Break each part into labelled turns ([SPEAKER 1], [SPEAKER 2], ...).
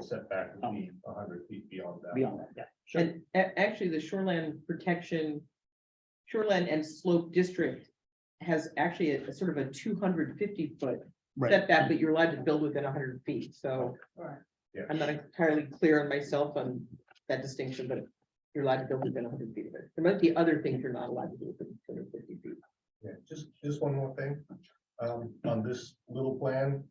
[SPEAKER 1] setback would be hundred feet beyond that.
[SPEAKER 2] Um, beyond that, yeah. Sure.
[SPEAKER 3] And a- actually, the shoreland protection, shoreland and slope district has actually a a sort of a two hundred fifty foot
[SPEAKER 2] Right,
[SPEAKER 3] setback, but you're allowed to build within hundred feet, so.
[SPEAKER 4] Right.
[SPEAKER 1] Yeah.
[SPEAKER 3] I'm not entirely clear on myself on that distinction, but you're allowed to build within hundred feet of it. There might be other things you're not allowed to do within two hundred fifty feet.
[SPEAKER 1] Yeah, just, just one more thing. Um, on this little plan,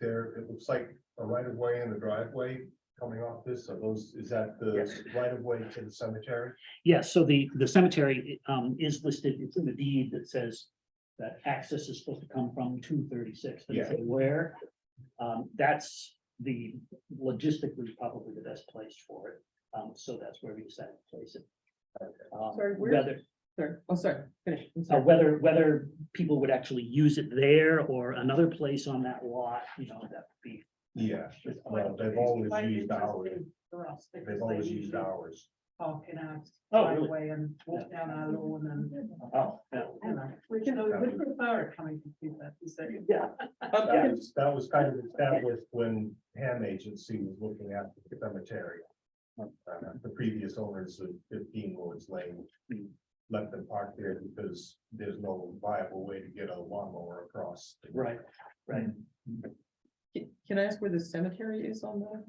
[SPEAKER 1] there, it looks like a right of way and a driveway coming off this, are those, is that the
[SPEAKER 2] Yes.
[SPEAKER 1] right of way to the cemetery?
[SPEAKER 2] yeah, so the, the cemetery um is listed, it's in the deed that says that access is supposed to come from two thirty-six,
[SPEAKER 1] Yeah.
[SPEAKER 2] doesn't say where. Um, that's the logistically probably the best place for it, um, so that's where we decided to place it. Um,
[SPEAKER 3] Sorry, where-
[SPEAKER 2] Whether,
[SPEAKER 3] Sorry, oh, sorry, finish. I'm
[SPEAKER 2] uh,
[SPEAKER 3] sorry.
[SPEAKER 2] whether, whether people would actually use it there or another place on that lot, you know, that would be
[SPEAKER 1] Yeah,
[SPEAKER 2] It's
[SPEAKER 1] well,
[SPEAKER 2] quite-
[SPEAKER 1] they've always used ours, they've always used
[SPEAKER 4] ours.
[SPEAKER 1] ours.
[SPEAKER 4] Park in our
[SPEAKER 2] Oh, really?
[SPEAKER 4] driveway and walk down our lawn and,
[SPEAKER 2] Oh, yeah.
[SPEAKER 4] you know, we can, we would prefer it coming from two thirty-six.
[SPEAKER 2] Oh, Yeah.
[SPEAKER 3] Um,
[SPEAKER 1] That was, that was kind of established when Ham Agency was looking at the cemetery. Uh, The previous owners of fifteen Lord's Lane let them park there because there's no viable way to get a lawnmower across. the-
[SPEAKER 2] Right, right.
[SPEAKER 3] can- Can I ask where the cemetery is on the,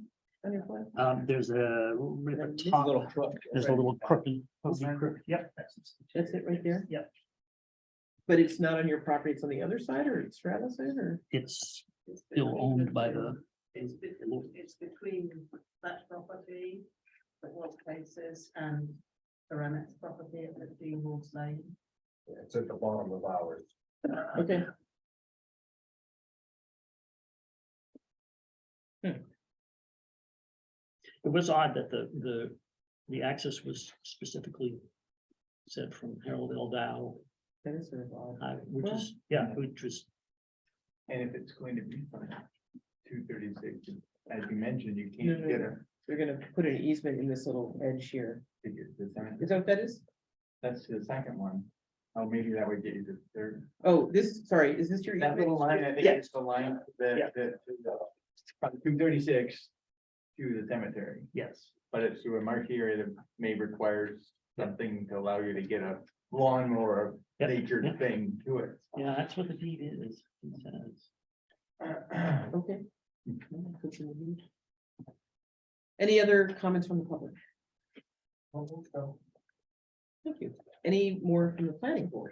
[SPEAKER 3] on your plan?
[SPEAKER 2] Um, there's a. right at the
[SPEAKER 3] There's a
[SPEAKER 2] top,
[SPEAKER 3] little crook.
[SPEAKER 2] There's a little crooky.
[SPEAKER 3] Okay.
[SPEAKER 2] Yep.
[SPEAKER 3] That's it right there?
[SPEAKER 2] Yep,
[SPEAKER 3] But it's not on your property, it's on the other side or it's Stratus's or?
[SPEAKER 2] it's still owned by the,
[SPEAKER 4] It's, be- it's between that property, that was places and the Remetz property at fifteen Wolves Lane.
[SPEAKER 1] It's at the bottom of ours.
[SPEAKER 3] Okay.
[SPEAKER 2] it was odd that the, the, the access was specifically. Said from Harold L. Dow,
[SPEAKER 3] That is sort of odd.
[SPEAKER 2] uh, which is, yeah, which was,
[SPEAKER 5] And if it's going to be from two thirty-six, as you mentioned, you
[SPEAKER 3] No, no,
[SPEAKER 5] can't get
[SPEAKER 3] no.
[SPEAKER 5] a.
[SPEAKER 3] They're gonna put an easement in this little edge here.
[SPEAKER 5] to get the sign.
[SPEAKER 3] Is that what that is?
[SPEAKER 5] That's the second one. Oh, maybe that would get you to third.
[SPEAKER 3] Oh, this, sorry, is this your?
[SPEAKER 5] That little
[SPEAKER 3] easement?
[SPEAKER 5] line, I think
[SPEAKER 3] Yeah.
[SPEAKER 5] is the line that, that, from two thirty-six to the cemetery.
[SPEAKER 2] yes,
[SPEAKER 5] But it's through a marked area that may requires something to allow you to get a lawnmower
[SPEAKER 2] Yep,
[SPEAKER 5] natured
[SPEAKER 2] yep.
[SPEAKER 5] thing to it.
[SPEAKER 2] yeah, that's what the deed is. it says.
[SPEAKER 3] Okay.
[SPEAKER 5] Mm-hmm.
[SPEAKER 3] Any other comments from the public? Thank you. Any more from the planning board?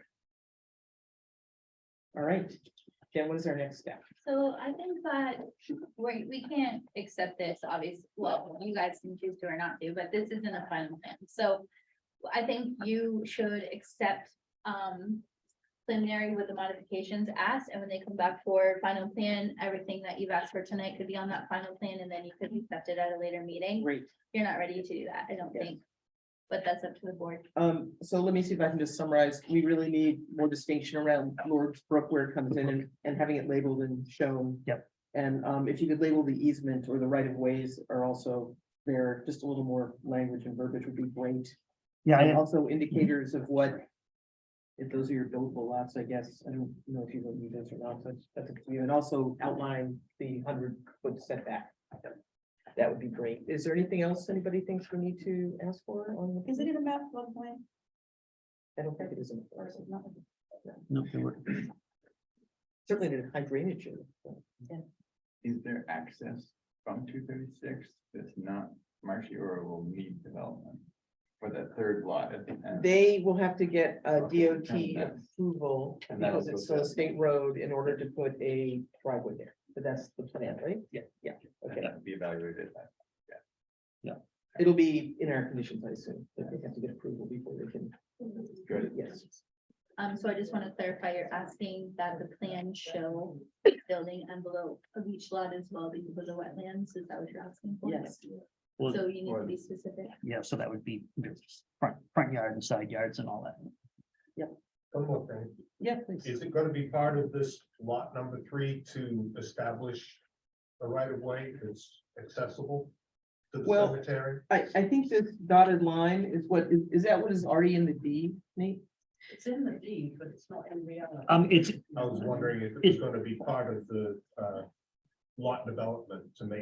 [SPEAKER 3] All right, Jen, what is our next step?
[SPEAKER 6] So I think that we, we can't accept this, obviously, well, you guys can choose to or not to, but this isn't a final plan, so. I think you should accept, um, preliminary with the modifications asked, and when they come back for final plan, everything that you've asked for tonight could be on that final plan, and then you could accept it at a later meeting.
[SPEAKER 3] Great.
[SPEAKER 6] You're not ready to do that, I don't
[SPEAKER 3] Yeah.
[SPEAKER 6] think, but that's up to the board.
[SPEAKER 3] Um, so let me see if I can just summarize. We really need more distinction around Lord's Brook where it comes in and, and having it labeled and shown.
[SPEAKER 2] Yep.
[SPEAKER 3] And, um, if you could label the easement or the right of ways are also there, just a little more language and verbiage would be great.
[SPEAKER 2] Yeah,
[SPEAKER 3] And
[SPEAKER 2] I,
[SPEAKER 3] also indicators of what. If those are your buildable lots, I guess, I don't know if you will need those or not, but that's up to you, and also outline the hundred foot setback. That would be great. Is there anything else anybody thinks we need to ask for on the?
[SPEAKER 4] in a map floodplain way
[SPEAKER 3] I don't think it is. in the forest.
[SPEAKER 4] not?
[SPEAKER 2] no, there were,
[SPEAKER 3] Certainly did high drainage. in it, so.
[SPEAKER 5] Is there access from two thirty-six that's not marshy or will need development? For that third lot at the end?
[SPEAKER 3] They will have to get a
[SPEAKER 5] Okay,
[SPEAKER 3] DOT
[SPEAKER 5] and that's-
[SPEAKER 3] approval
[SPEAKER 5] and that'll
[SPEAKER 3] because it's
[SPEAKER 5] go
[SPEAKER 3] a
[SPEAKER 5] down.
[SPEAKER 3] state road in order to put a driveway there. But that's the plan, right? Yeah. Yeah,
[SPEAKER 5] and
[SPEAKER 3] okay.
[SPEAKER 5] that'll Be evaluated.
[SPEAKER 3] It'll be in our conditions, I assume, that they have to get approval before they can,
[SPEAKER 5] Good.
[SPEAKER 3] yes.
[SPEAKER 6] Um, so I just want to clarify, you're asking that the plan show building envelope of each lot as well because of the wetlands, is that what you're asking for?
[SPEAKER 3] Yes.
[SPEAKER 2] well,
[SPEAKER 6] So you need to
[SPEAKER 5] Well-
[SPEAKER 6] be specific.
[SPEAKER 2] yeah, so that would be front, front yard and side yards and all that.
[SPEAKER 1] One more thing,
[SPEAKER 3] Yeah, please.
[SPEAKER 1] is it gonna be part of this lot number three to establish a right of way that's accessible to the
[SPEAKER 3] Well-
[SPEAKER 1] cemetery?
[SPEAKER 3] I, I think this dotted line is what, is, is that what is already in the deed, Nate?
[SPEAKER 4] It's in the deed, but it's not in reality.
[SPEAKER 2] Um, it's,
[SPEAKER 1] I was wondering if it was gonna be part of the, uh, lot development to make